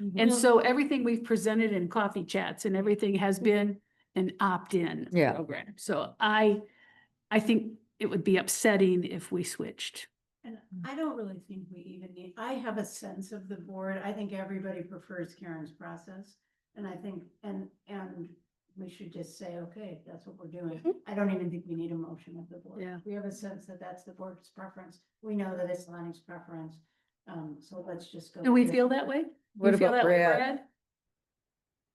Mm-hmm. And so everything we've presented in coffee chats and everything has been an opt-in Mm-hmm. Yeah. program. So I, I think it would be upsetting if we switched. And I don't really think we even need, I have a sense of the board. I think everybody prefers Karen's process. And I think, and, and we should just say, okay, if that's what we're doing. I don't even think we need a motion of the board. Mhm. Yeah. We have a sense that that's the board's preference. We know that it's Lonnie's preference. Um, so let's just go. Do we with it. feel that way? What You feel about that way, Brad?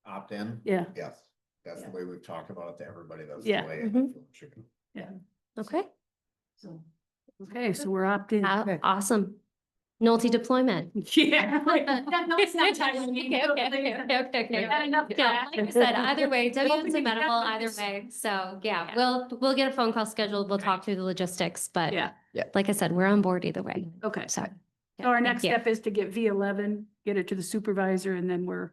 opt-in? Yeah, Yes, that's the Yeah. way we've talked about it to everybody, that's the Yeah. way. I Mhm. feel it should be. Okay, So. okay, so we're opt-in. Aw- Okay. awesome. Multi deployment. Yeah. right. That helps sometimes when you Okay, go okay, to okay, things okay, okay, okay. Yeah, enough Yeah, time. Like I said, either way, Deb's Hopefully we amenable have either this. way. So yeah, Yeah. we'll, we'll get a phone call scheduled. We'll Okay. talk through the logistics, but Yeah. Yeah. like I said, we're on board either way. Okay, so So. yeah, our thank next you. step is to get V eleven, get it to the supervisor, and then we're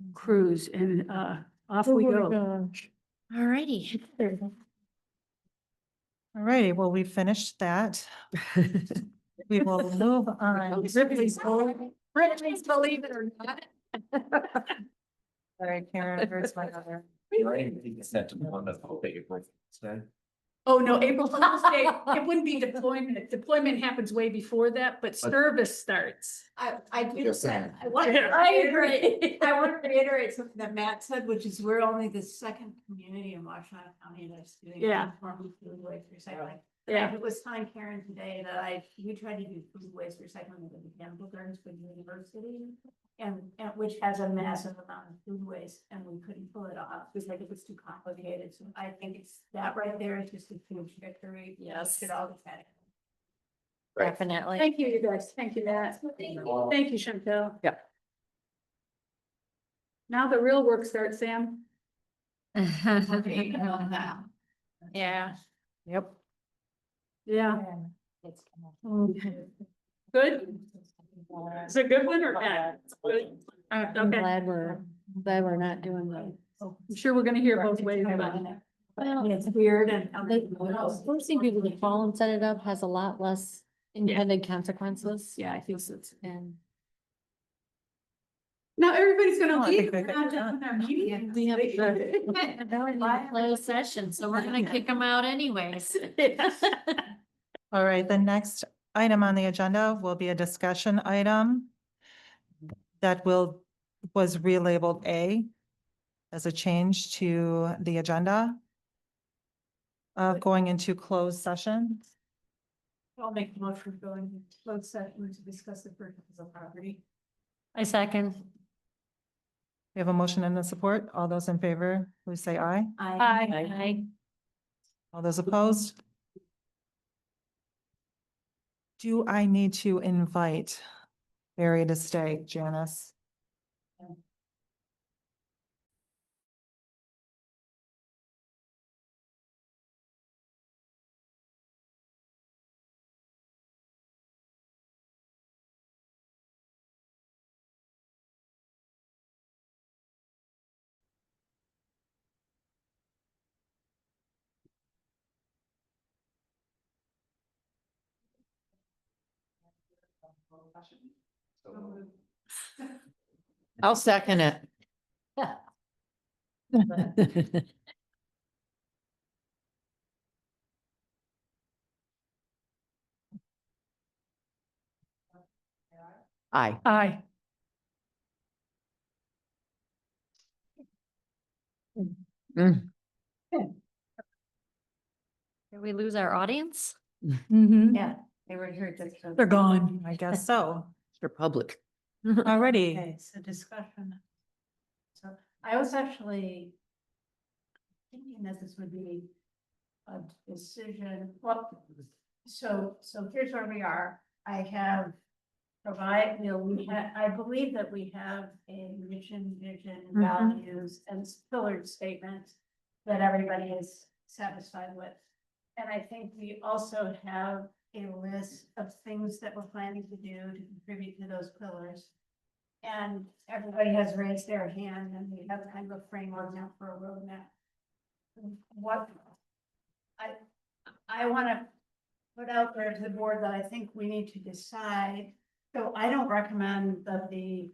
Mm-hmm. cruise and uh, off Oh we go. Alrighty. All righty, well, we finished that. We will move on. Ripley's, Bel- Ripley's Believe It or Not. Sorry, Karen, where's my other? Oh, no, April Fool's Day, it wouldn't be deployment. Deployment happens way before that, but service starts. I, I do, Just saying. I want to reiterate, I want to reiterate something that Matt said, which is we're only the second community in Washington County that's doing. Yeah. informal Food waste recycling. Yeah, It was time Karen today that I, we tried to do food waste recycling with the mechanical gardens for the university. And, and which has a massive amount of food waste and we couldn't pull it off, because like it was too complicated, so I think it's, that right there is just a huge victory. Yes. Get all the credit. Definitely. thank you, you guys. Thank you, Matt. Thank Thank you, Chantel. Yeah. Now the real work starts, Sam. Yeah. Yep. Yeah, good? Is it a good one or bad? Good? I'm Okay, glad we're, glad we're not doing that. Oh, I'm sure we're gonna hear both ways about it. Well, It's weird and. The forcing people to fall and set it up has a lot less intended consequences. Yeah, I think so. And Now everybody's No, gonna I leave. We're think we're not good. done with our meeting. we have Why- a closed session, so we're gonna kick them out anyways. All right, the next item on the agenda will be a discussion item that will, was relabeled A as a change to the agenda of going into closed session. I'll make the motion for going to closed session to discuss the purchase of property. I second. We have a motion and a support. All those in favor, please say aye. Hi. Aye. All those opposed? Do I need to invite Barry to stay, Janice? I'll second it. Aye. Hi. Did we lose our audience? Yeah, they were here just. for- I guess so. Mr. Public. Alrighty, Okay, so discussion. So I was actually thinking that this would be a decision, well, so, so here's where we are. I have provide, you know, we had, I believe that we have a mission, vision, Mhm. values and pillared statements that everybody is satisfied with. And I think we also have a list of things that we're planning to do to contribute to those pillars. And everybody has raised their hand and we have kind of a framework now for a roadmap. What I, I want to put out there to the board that I think we need to decide. So I don't recommend that the